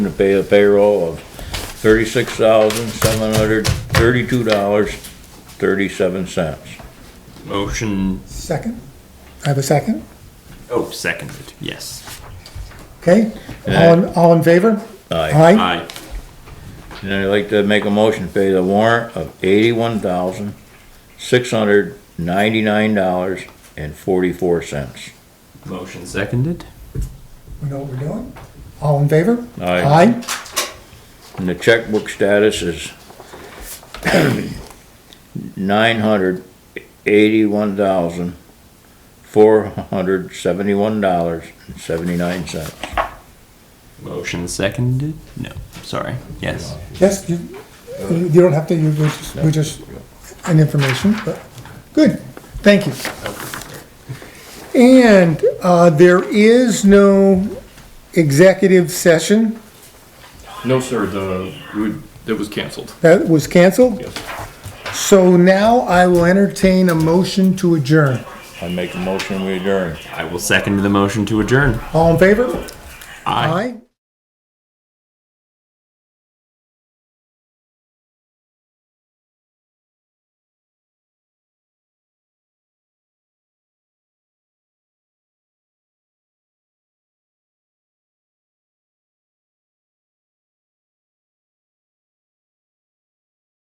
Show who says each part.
Speaker 1: to pay a payroll of thirty-six thousand, seven hundred, thirty-two dollars, thirty-seven cents.
Speaker 2: Motion,
Speaker 3: Second? I have a second?
Speaker 2: oh, seconded, yes.
Speaker 3: Okay? All, in- all in favor?
Speaker 1: Aye.
Speaker 3: Aye.
Speaker 2: Aye.
Speaker 1: And I'd like to make a motion to pay the warrant of eighty-one thousand, six hundred, ninety-nine dollars and forty-four cents.
Speaker 2: Motion seconded.
Speaker 3: We know what we're doing. All in favor?
Speaker 1: Aye.
Speaker 3: Aye.
Speaker 1: And the checkbook status is nine hundred eighty-one thousand, four hundred seventy-one dollars and seventy-nine cents.
Speaker 2: Motion seconded, no, sorry, yes.
Speaker 3: Yes, you, you you don't have to, you, we just, we just, an information, but, good, thank you. And, uh, there is no executive session
Speaker 4: No, sir, the, we- that was canceled.
Speaker 3: that was canceled,
Speaker 4: Yes.
Speaker 3: so now I will entertain a motion to adjourn.
Speaker 1: I make a motion, we adjourn.
Speaker 2: I will second the motion to adjourn.
Speaker 3: All in favor?
Speaker 2: Aye.
Speaker 3: Aye.